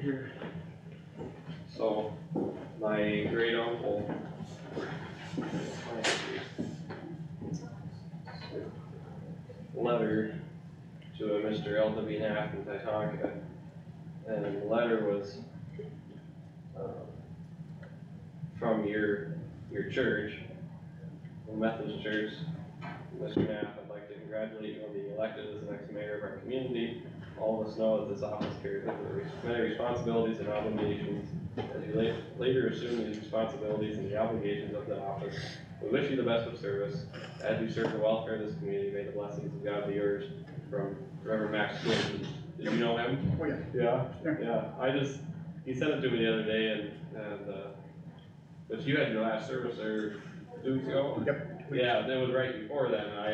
here. So, my great uncle. Letter to a Mr. Elton B. Knapp in Titanca. And the letter was, um, from your, your church, the Methodist Church. Mr. Knapp, I'd like to congratulate you on being elected as the next mayor of our community. All of us know that this office carries with it many responsibilities and obligations as you la- later assume these responsibilities and the obligations of the office, we wish you the best of service. As you serve the welfare of this community, may the blessings of God be yours from Reverend Max Swinton. Did you know him? Oh, yeah. Yeah, Yeah. yeah, I just, he sent it to me the other day and, and, uh, but you had your last service there two weeks ago? Yep. Yeah, that was right before that, and I,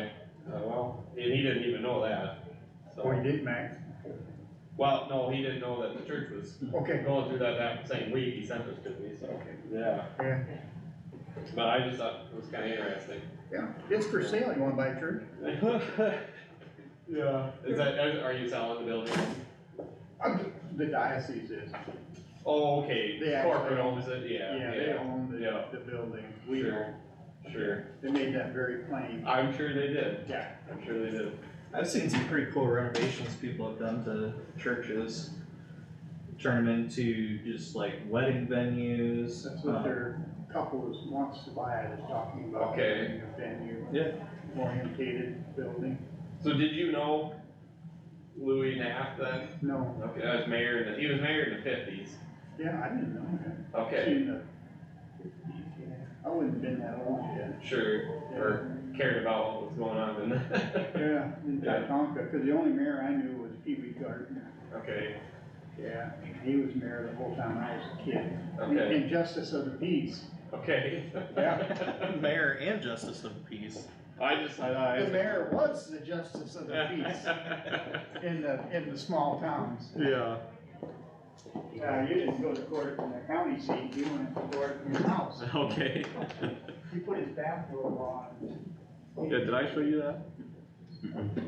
uh, well, and he didn't even know that, Oh, you so, did, Max? well, no, he didn't know that the church was Okay, going through that that same week, he sent this to me, so, okay, yeah, yeah, but I just thought it was kinda interesting. yeah, it's for sale, you wanna buy a church? Yeah. Is that, are you selling the building? Um, The diocese is, Oh, okay, They actually- corporate owns it, yeah, yeah, they yeah, own the, yeah. the building, we Sure. own, sure, they made that very plain, I'm sure they did, yeah, I'm sure they did, I've seen some pretty cool renovations people have done to churches. Turn them into just like wedding venues. that's what Uh-huh. um, their couple was, wants to buy it, is talking about. Okay. having a Venue. Yeah. Orientated building, so did you know Louis Knapp then? no, Okay, I was mayor in the, he was mayor in the fifties, yeah, I didn't know that. okay, Seen the- I wouldn't have been that old yet. sure, or cared about what was going on in the, Yeah, in Yeah. Titanca, cause the only mayor I knew was Pee Wee Gardner. okay, Yeah, he was mayor the whole time I was a kid. okay, And justice of the peace. okay. Yeah. Mayor and justice of the peace. I just, I, I. The mayor was the justice of the peace in the, in the small towns. Yeah. Yeah, you didn't go to court from the county seat, you went to court from your house. Okay. He put his bathrobe on. did I show you that?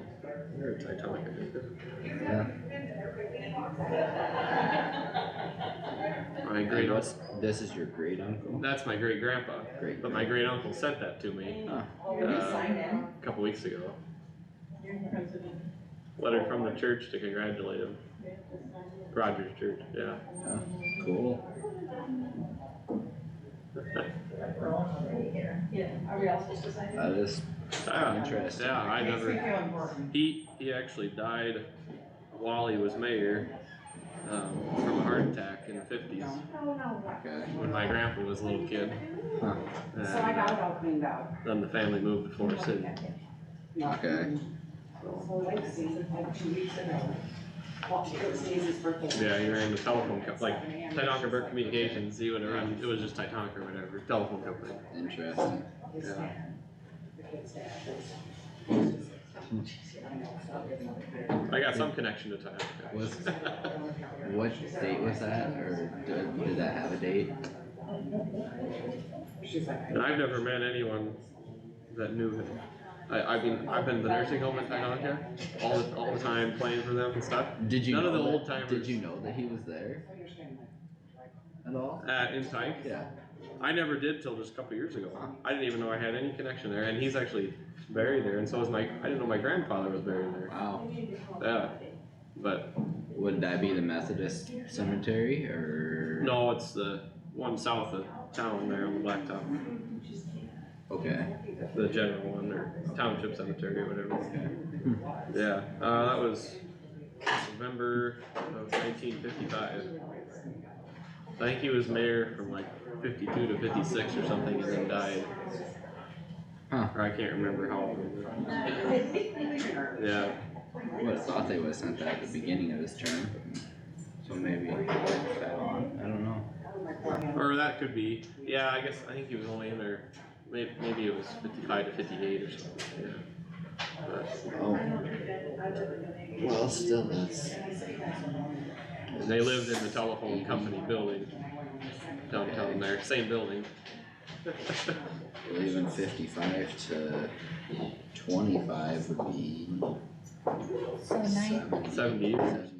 My great uncle, This is your great uncle? that's my great grandpa, Great. but my great uncle sent that to me Oh, uh, a couple weeks ago. Letter from the church to congratulate him, Rogers Church, yeah. Cool. Yeah, are we all supposed to sign? That is Ah, interesting. Yeah, I Makes me never, feel important. he, he actually died while he was mayor, um, from a heart attack in the fifties, Okay. when my grandpa was a little kid. Huh. And, So I got uh, it all cleaned out. Then the family moved to Forest City, Okay. so, So like Stacey, like two weeks ago, well, it was Daisy's birthday. yeah, he ran the telephone company, like, 7 a.m. Titanca Burke Communications, he would have run, it was just Titanca or whatever, telephone company. Interesting. His yeah. dad, the kid's dad. I got some connection to Titanca. Was, what date was that or did, did that have a date? She's like. And I've never met anyone that knew him. I, I mean, I've been to the nursing home in Titanca all the, all the time playing for them and stuff. Did you None of know the that- old-timers. Did you know that he was there at all? At, in Titanca. Yeah, I never did till just a couple years ago. I didn't even know I had any connection there and he's actually buried there and so is my, I didn't know my grandfather was buried there. wow. Yeah. But Would that be the Methodist cemetery or? no, it's the one south of town there on the blacktop. Okay, the general one or township cemetery or okay. whatever. Yeah, uh, that was November of nineteen fifty-five. I think he was mayor from like fifty-two to fifty-six or something and then died. Huh. Or I can't remember how old. Yeah, Would have thought they would have sent that at the beginning of his term. So maybe he worked that on, I don't know. or that could be, yeah, I guess, I think he was only in there, may- maybe it was fifty-five to fifty-eight or something, yeah. But- Oh. Well, still that's. And they lived in the telephone company building downtown there, same building. Leaving fifty-five to twenty-five would be So nine, Seventy years.